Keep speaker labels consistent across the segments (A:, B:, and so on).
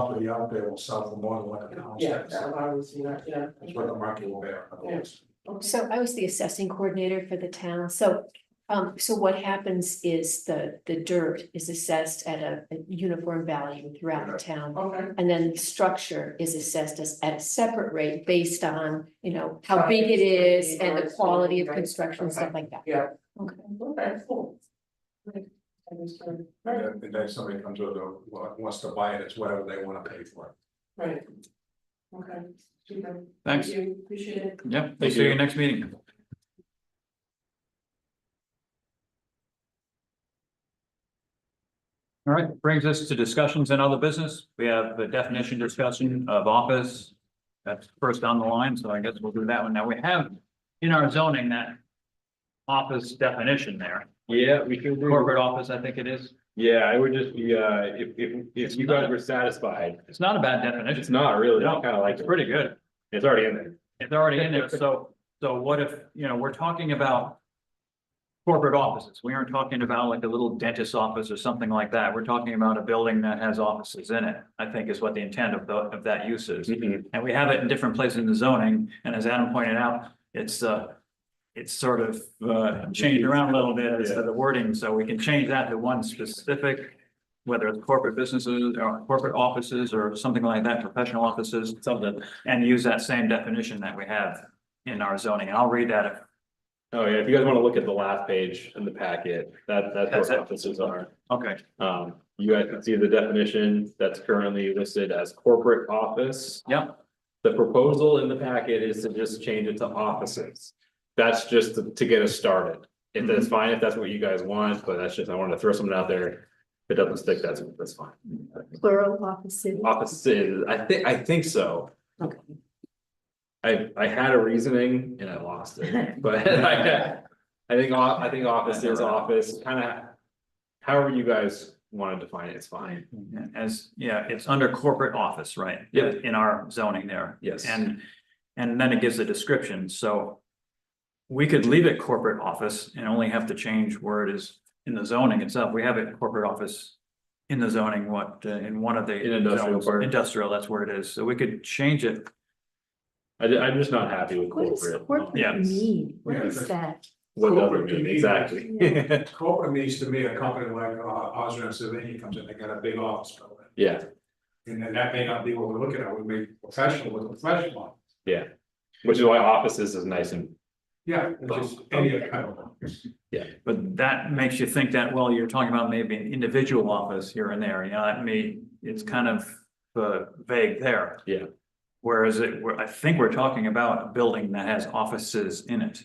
A: property out there will sell for more than what it costs.
B: Yeah, that I was, you know, yeah.
A: That's what the market will bear. otherwise.
C: So I was the assessing coordinator for the town, so, um, so what happens is the, the dirt is assessed at a, a uniform value throughout the town.
B: Okay,
C: And then the structure is assessed as at a separate rate based on, you know, how big it is and the quality of construction and stuff like that.
B: yeah,
C: Okay,
B: okay, cool. Great. I was gonna- Right,
A: And then somebody comes with a, wants to buy it, it's whatever they wanna pay for
B: right. Okay, super. Thank
D: Thanks.
B: you, Appreciate it.
D: Yeah, we'll see you next meeting. All right, brings us to discussions and other business. We have the definition discussion of office. That's first on the line, so I guess we'll do that one. Now, we have in our zoning that office definition there,
E: Yeah, we can, do-
D: corporate office, I think it is.
E: yeah, it would just be, uh, if, if,
D: It's
E: if you
D: not-
E: guys were satisfied,
D: It's not a bad definition.
E: it's not really, I
D: No,
E: kinda like
D: It's
E: it,
D: pretty good.
E: it's already in there.
D: It's already in there, so, so what if, you know, we're talking about. Corporate offices, we aren't talking about like a little dentist's office or something like that, we're talking about a building that has offices in it, I think is what the intent of the, of that use is.
E: Mhm.
D: And we have it in different places in the zoning, and as Adam pointed out, it's, uh. It's sort of, uh, changed around a little bit as to the wording, so we can change that to one specific. Whether it's corporate businesses or corporate offices or something like that, professional offices, something, and use that same definition that we have. In our zoning, and I'll read that if
E: Oh, yeah, if you guys wanna look at the last page in the packet, that, that's
D: That's it.
E: where offices are.
D: Okay,
E: Um, you guys can see the definition that's currently listed as corporate office.
D: Yep.
E: The proposal in the packet is to just change it to offices. That's just to to get us started. If
D: Mm-hmm.
E: that's fine, if that's what you guys want, but that's just, I wanted to throw something out there. If it doesn't stick, that's, that's fine.
C: Plural offices.
E: Offices, I think, I think so.
C: Okay.
E: I, I had a reasoning and I lost it, but I, I think, o- I think office is office, kinda. However you guys wanna define it, it's fine,
D: as, yeah, it's under corporate office, right?
E: Yeah.
D: In our zoning there.
E: yes.
D: And, and then it gives a description, so. We could leave it corporate office and only have to change where it is in the zoning itself, we have it corporate office. In the zoning, what, uh, in one of the.
E: In industrial
D: zones.
E: park.
D: Industrial, that's where it is, so we could change it,
E: I, ju- I'm just not happy with
C: What does
E: corporate.
D: Yeah.
C: corporate mean?
A: Yeah,
C: What is
A: that's-
C: that?
E: What does it
A: Corporate, you
E: mean,
A: mean-
E: exactly?
A: it. Corporate means to me a company like, uh, Osram Savini comes in, they got a big office building.
E: Yeah,
A: And then that may not be what we're looking at, we may be professional with a professional. office.
E: yeah, which is why offices is nice and,
A: Yeah, it's just any kind of. office.
D: but that makes you think that, well, you're talking about maybe an individual office here and there, you know, that may, it's kind of. Uh, vague there.
E: Yeah.
D: Whereas it, we're- I think we're talking about a building that has offices in it.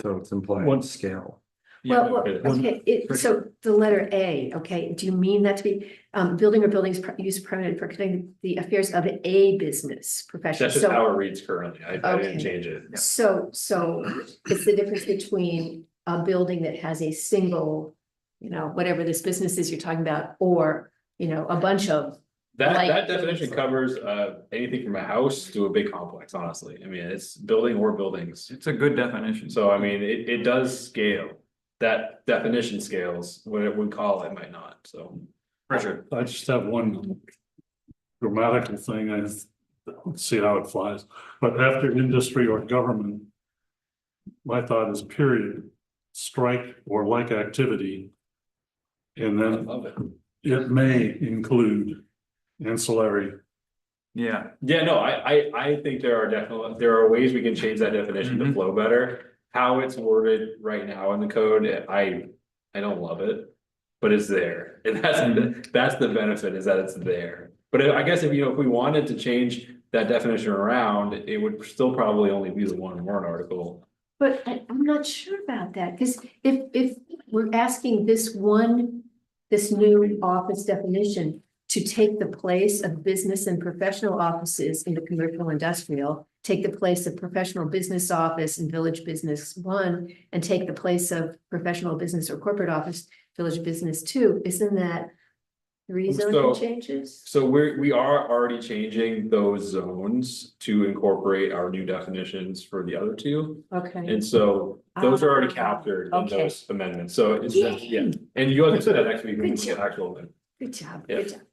F: So it's implied
D: One-
F: scale.
C: Well, well,
E: it
D: is.
C: okay, it, so the letter A, okay, do you mean that to be, um, building or buildings per- used permanent for conducting the affairs of a business profession?
E: that's just
C: So,
E: how it reads currently, I, I
C: Okay.
E: didn't change it.
C: so, so it's the difference between a building that has a single, you know, whatever this business is you're talking about, or, you know, a bunch of,
E: That,
C: Like-
E: that definition covers, uh, anything from a house to a big complex, honestly, I mean, it's building or buildings.
D: It's a good definition.
E: So I mean, it, it does scale, that definition scales, what it would call it might not, so.
D: Richard.
G: I just have one grammatical thing, I just don't see how it flies, but after industry or government. My thought is period, strike or like activity. And
E: I
G: then
E: love it.
G: it may include ancillary,
D: Yeah,
E: Yeah, no, I, I, I think there are definitely, there are ways we can change that definition to
D: Mhm.
E: flow better. How it's worded right now in the code, I, I don't love it, but it's there, and that's, the- that's the benefit is that it's there. But I guess if, you know, if we wanted to change that definition around, it would still probably only be the one warrant article.
C: but I, I'm not sure about that, because if, if we're asking this one, this new office definition to take the place of business and professional offices in the commercial industrial, take the place of professional business office and village business one, and take the place of professional business or corporate office, village business two, isn't that three zoning
E: So-
C: changes?
E: So we're, we are already changing those zones to incorporate our new definitions for the other two.
C: Okay.
E: And so those are already
C: Ah,
E: captured in
C: okay.
E: those amendments, so it's, yeah,
C: Yay.
E: and you guys said that actually, we
C: Good
E: can
C: job.
E: actual amendment.
C: Good job,
E: Yeah.
C: good job.